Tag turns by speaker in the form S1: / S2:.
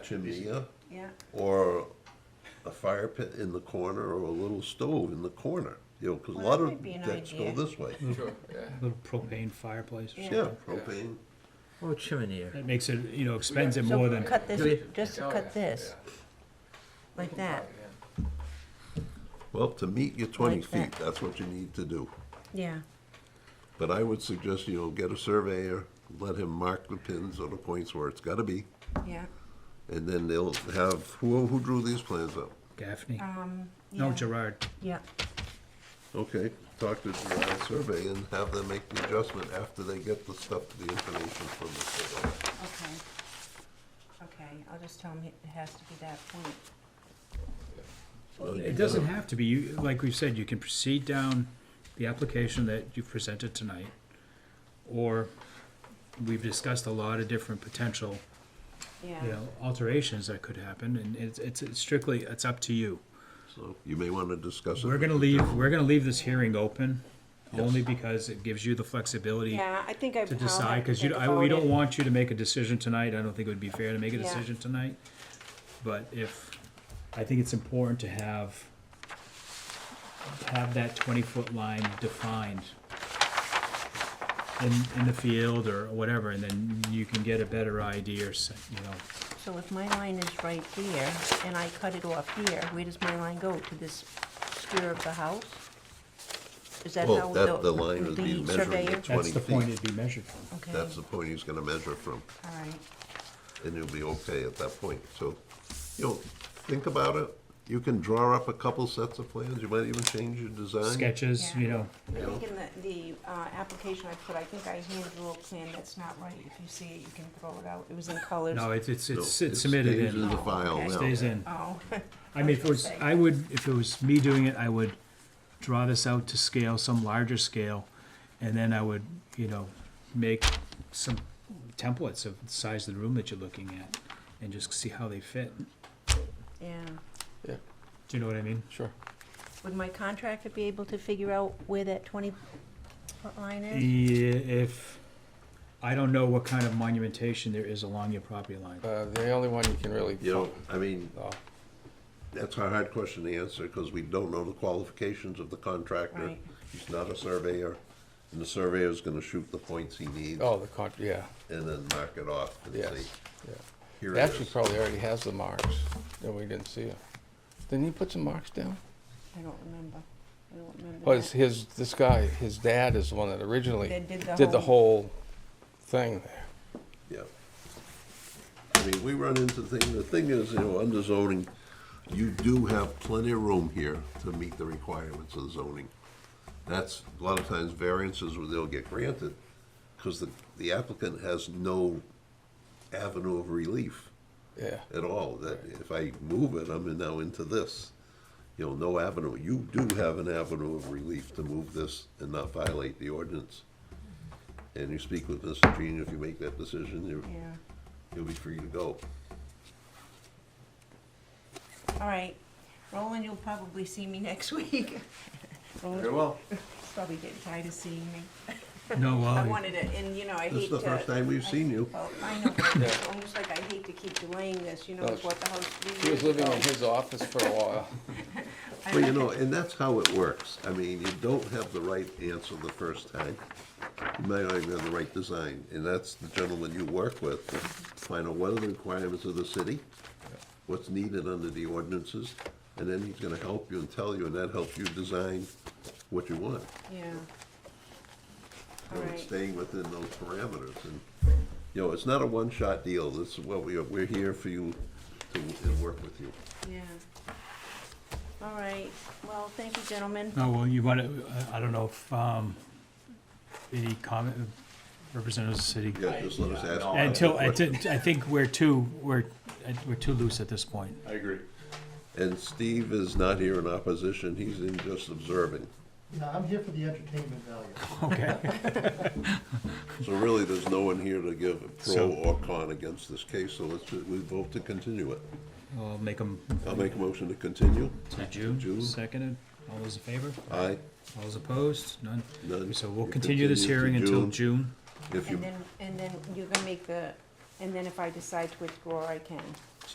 S1: chimney, yeah,
S2: yeah.
S1: or a fire pit in the corner, or a little stove in the corner, you know, because a
S2: Well,
S1: lot
S2: that
S1: of
S2: might be an
S1: decks go
S2: idea.
S1: this way.
S3: Sure, yeah.
S4: little propane fireplace. or
S2: Yeah.
S1: Yeah, propane,
S5: Oh, chimney here.
S4: That makes it, you know, expends it
S2: So
S4: more than,
S2: Cut this,
S5: Yeah.
S2: just
S3: Oh, yeah,
S2: cut this,
S3: yeah.
S2: like that,
S1: well, to meet your twenty
S2: Like that.
S1: feet, that's what you need to do.
S2: yeah.
S1: But I would suggest, you know, get a surveyor, let him mark the pins or the points where it's gotta be,
S2: Yeah,
S1: and then they'll have, who, who drew these plans up?
S4: Gaffney.
S2: um,
S4: No,
S2: yeah,
S4: Gerard.
S2: yeah,
S1: Okay, talk to the land survey and have them make the adjustment after they get the stuff, the information from the surveyor.
S2: okay. Okay, I'll just tell him it has to be that point.
S1: Well, you
S4: It doesn't
S1: gotta-
S4: have to be, you, like we've said, you can proceed down the application that you've presented tonight. Or we've discussed a lot of different potential, you
S2: Yeah,
S4: know, alterations that could happen and it's, it's strictly, it's up to you.
S1: So you may wanna discuss it.
S4: We're
S1: with
S4: gonna
S1: the
S4: leave,
S1: gentleman.
S4: we're gonna leave this hearing open, only because it gives you the flexibility
S2: yeah, I think I've.
S4: to
S2: I'll have
S4: decide, because you,
S2: think
S4: I, we
S2: about
S4: don't
S2: it.
S4: want you to make a decision tonight, I don't think it would be fair to make a
S2: Yeah.
S4: decision tonight. But if, I think it's important to have, have that twenty-foot line defined in, in the field or whatever, and then you can get a better idea, or so- you know,
S2: So if my line is right here, and I cut it off here, where does my line go? To this sphere of the house? Is that
S1: Well,
S2: how
S1: that- the
S2: the,
S1: line would be
S2: the
S1: measuring
S2: surveyor?
S1: it.
S4: that's
S1: 20
S4: the point
S1: feet.
S4: it'd be measured from.
S2: Okay, all
S1: That's the point he's gonna measure from,
S2: right,
S1: and you'll be okay at that point. So, you know, think about it. You can draw up a couple sets of plans. You might even change your design.
S4: Sketches, you
S2: Yeah.
S4: know,
S2: I think in the, the, uh, application I put, I think I hand drew a plan that's not right, if you see it, you can throw it out, it was in colors.
S4: no, it's, it's,
S1: No,
S4: it's
S1: it
S4: it's submitted
S1: stays
S4: in,
S1: the file
S2: okay.
S1: now.
S4: stays in.
S2: Oh,
S4: I mean, if it was, I would, if it was me doing it, I would draw this out to scale, some larger scale, and then I would, you know, make some templates of the size of the room that you're looking at, and just see how they fit.
S2: yeah.
S4: Do you know what I mean?
S3: Sure.
S2: Would my contractor be able to figure out where that twenty foot line is?
S4: Yeah, if, I don't know what kind of monumentation there is along your property line.
S3: Uh, the only one you can really.
S1: You know, I mean,
S3: Oh,
S1: that's a hard question to answer because we don't know the qualifications of the contractor.
S2: Right.
S1: He's not a surveyor, and the surveyor's gonna shoot the points he needs
S3: oh, the con, yeah,
S1: and then mark it off and
S3: yes,
S1: say,
S3: yeah.
S1: here
S3: It
S1: it
S3: actually
S1: is.
S3: probably already has the marks, and we didn't see it. Didn't he put some marks down?
S2: I don't remember, I don't remember
S4: Oh,
S3: Well, it's
S2: that.
S3: his, this guy, his dad is the one that originally
S2: That did the
S3: did the whole thing there.
S1: Yeah. I mean, we run into thing, the thing is, you know, under zoning, you do have plenty of room here to meet the requirements of zoning. That's, a lot of times variances where they'll get granted, because the, the applicant has no avenue of relief
S3: Yeah,
S1: at all, that if I move it, I'm now into this. You know, no avenue, you do have an avenue of relief to move this and not violate the ordinance. And you speak with Mr. Jean, if you make that decision, you're,
S2: Yeah,
S1: you'll be free to go.
S2: all right, Roland, you'll probably see me next week. Roland's
S1: well.
S2: probably getting tired of seeing me.
S4: No,
S2: I
S4: well,
S2: wanted it, and you know, I hate to.
S1: This is the first time we've seen you.
S2: Well, I know, but it's
S3: Yeah.
S2: almost like I hate to keep delaying this, you know,
S3: No,
S2: it's what the house. three
S3: he Oh,
S2: years
S3: was living
S2: ago.
S3: in his office for a while.
S2: I
S1: Well, you
S2: like
S1: know,
S2: it.
S1: and that's how it works. I mean, you don't have the right answer the first time. You might not even have the right design, and that's the gentleman you work with. Find out what are the requirements of the city, what's needed under the ordinances, and then he's gonna help you and tell you, and that helps you design what you want.
S2: Yeah.
S1: you know, and
S2: Right.
S1: Staying within those parameters, and, you know, it's not a one-shot deal. This is what we are, we're here for you to, to work with you.
S2: Yeah. All right, well, thank you, gentlemen.
S4: no, Oh, well, you wanna, I I don't know if, um, any comment, representatives of the city?
S1: Yeah, just let us ask. you
S4: Until, I
S1: questions.
S4: did- I think we're too, we're, uh, we're too loose at this point.
S6: I agree.
S1: And Steve is not here in opposition, he's in just observing.
S7: Yeah, I'm here for the entertainment value.
S4: Okay.
S1: So really, there's no one here to give a pro
S4: So-
S1: or con against this case, so let's, we vote to continue it.
S4: I'll make them
S1: I'll make a motion to continue.
S4: to June,
S1: June.
S4: seconded. All those in favor?
S1: Aye,
S4: All those opposed? None?
S1: none.
S4: So we'll
S1: You
S4: continue this hearing
S1: to
S4: until June.
S1: If you,
S2: And then, and then you're gonna make the, and then if I decide to withdraw, I can.